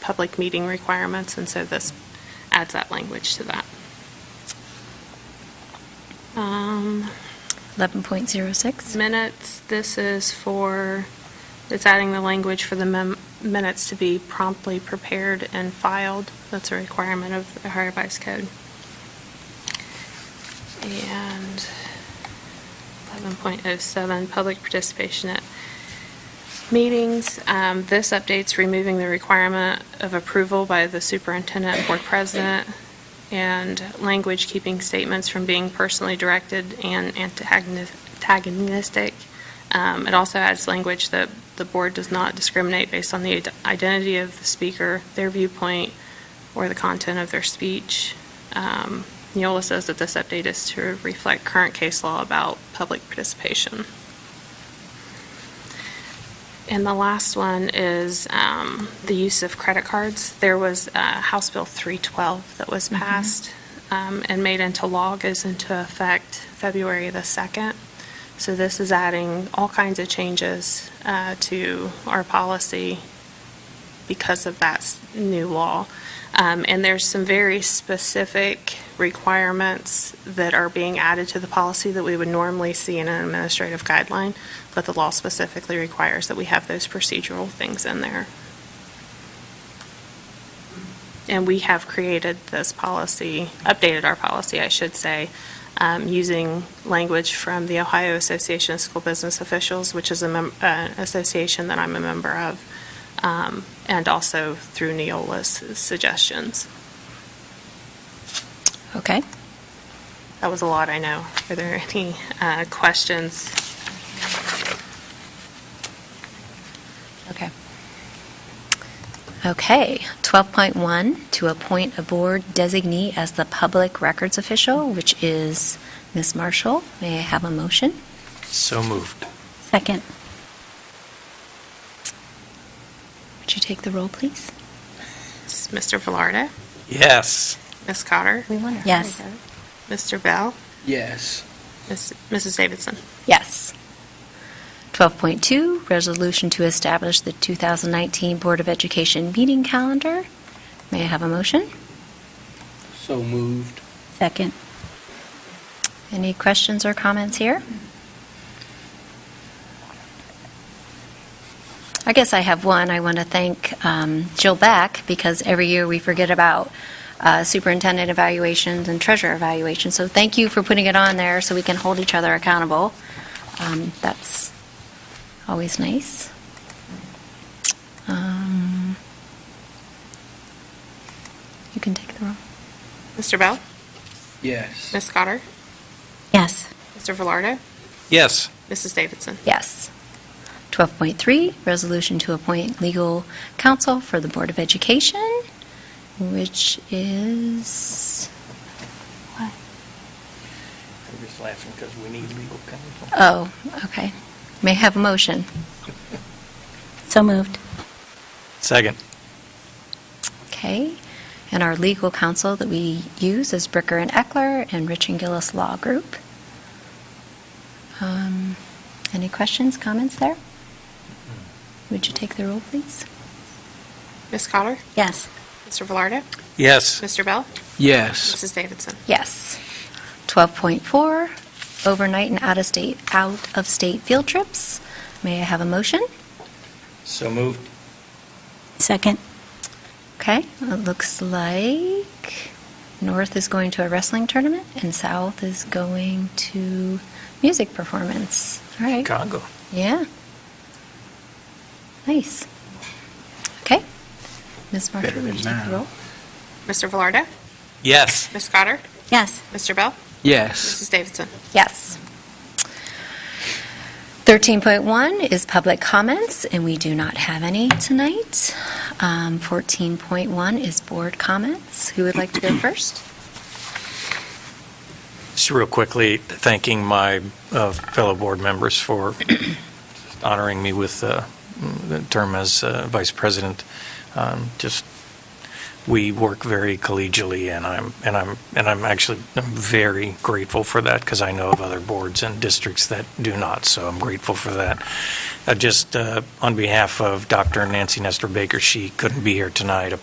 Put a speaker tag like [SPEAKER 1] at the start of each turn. [SPEAKER 1] public meeting requirements, and so this adds that language to that. Um,
[SPEAKER 2] 11.06.
[SPEAKER 1] Minutes, this is for, it's adding the language for the mem- minutes to be promptly prepared and filed. That's a requirement of the Ohio Vice Code. And 11.07, public participation at meetings. Um, This update's removing the requirement of approval by the superintendent and board president and language keeping statements from being personally directed and antagoni- antagonistic. Um, It also adds language that the board does not discriminate based on the id- identity of the speaker, their viewpoint, or the content of their speech. Um, Neola says that this update is to reflect current case law about public participation. And the last one is um, the use of credit cards. There was uh, House Bill 312 that was passed um, and made into law, goes into effect February the 2nd. So this is adding all kinds of changes uh, to our policy because of that s- new law. Um, And there's some very specific requirements that are being added to the policy that we would normally see in an administrative guideline, but the law specifically requires that we have those procedural things in there. And we have created this policy, updated our policy, I should say, um, using language from the Ohio Association of School Business Officials, which is an association that I'm a member of, um, and also through Neola's suggestions.
[SPEAKER 2] Okay.
[SPEAKER 1] That was a lot, I know. Are there any uh, questions?
[SPEAKER 2] Okay. Okay. 12.1, to appoint a board designee as the public records official, which is Ms. Marshall. May I have a motion?
[SPEAKER 3] So moved.
[SPEAKER 2] Second. Would you take the roll, please?
[SPEAKER 1] Mr. Velarde?
[SPEAKER 3] Yes.
[SPEAKER 1] Ms. Cotter?
[SPEAKER 4] We wonder. how
[SPEAKER 2] Yes.
[SPEAKER 4] they vote.
[SPEAKER 1] Mr. Bell?
[SPEAKER 5] Yes.
[SPEAKER 1] Ms. Mrs. Davidson?
[SPEAKER 2] Yes. 12.2, resolution to establish the 2019 Board of Education meeting calendar. May I have a motion?
[SPEAKER 5] So moved.
[SPEAKER 4] Second.
[SPEAKER 2] Any questions or comments here? I guess I have one. I want to thank um, Jill Beck because every year we forget about uh, superintendent evaluations and treasurer evaluations. So thank you for putting it on there so we can hold each other accountable. Um, That's always nice. Um, You can take the roll.
[SPEAKER 1] Mr. Bell?
[SPEAKER 5] Yes.
[SPEAKER 1] Ms. Cotter?
[SPEAKER 4] Yes.
[SPEAKER 1] Mr. Velarde?
[SPEAKER 3] Yes.
[SPEAKER 1] Mrs. Davidson?
[SPEAKER 2] Yes. 12.3, resolution to appoint legal counsel for the Board of Education, which is, what?
[SPEAKER 5] I'm just laughing because we need legal counsel.
[SPEAKER 2] Oh, okay. May I have a motion?
[SPEAKER 4] So moved.
[SPEAKER 3] Second.
[SPEAKER 2] Okay. And our legal counsel that we use is Bricker and Eckler and Rich and Gillis Law Group. Um, Any questions, comments there? Would you take the roll, please?
[SPEAKER 1] Ms. Cotter?
[SPEAKER 4] Yes.
[SPEAKER 1] Mr. Velarde?
[SPEAKER 3] Yes.
[SPEAKER 1] Mr. Bell?
[SPEAKER 5] Yes.
[SPEAKER 1] Mrs. Davidson?
[SPEAKER 2] Yes. 12.4, overnight and out-of-state, out-of-state field trips. May I have a motion?
[SPEAKER 3] So moved.
[SPEAKER 4] Second.
[SPEAKER 2] Okay, it looks like North is going to a wrestling tournament and South is going to music performance. All right.
[SPEAKER 3] Congo.
[SPEAKER 2] Yeah. Nice. Okay. Ms. Marshall,
[SPEAKER 5] Better
[SPEAKER 2] would you
[SPEAKER 5] than
[SPEAKER 2] take
[SPEAKER 5] mine.
[SPEAKER 2] the roll?
[SPEAKER 1] Mr. Velarde?
[SPEAKER 3] Yes.
[SPEAKER 1] Ms. Cotter?
[SPEAKER 4] Yes.
[SPEAKER 1] Mr. Bell?
[SPEAKER 5] Yes.
[SPEAKER 1] Mrs. Davidson?
[SPEAKER 2] Yes. 13.1 is public comments, and we do not have any tonight. Um, 14.1 is board comments. Who would like to go first?
[SPEAKER 3] Just real quickly, thanking my uh, fellow board members for honoring me with uh, the term as uh, vice president. Um, Just, we work very collegially, and I'm, and I'm, and I'm actually I'm very grateful for that, because I know of other boards and districts that do not, so I'm grateful for that. Uh, Just uh, on behalf of Dr. Nancy Nestor Baker, she couldn't be here tonight,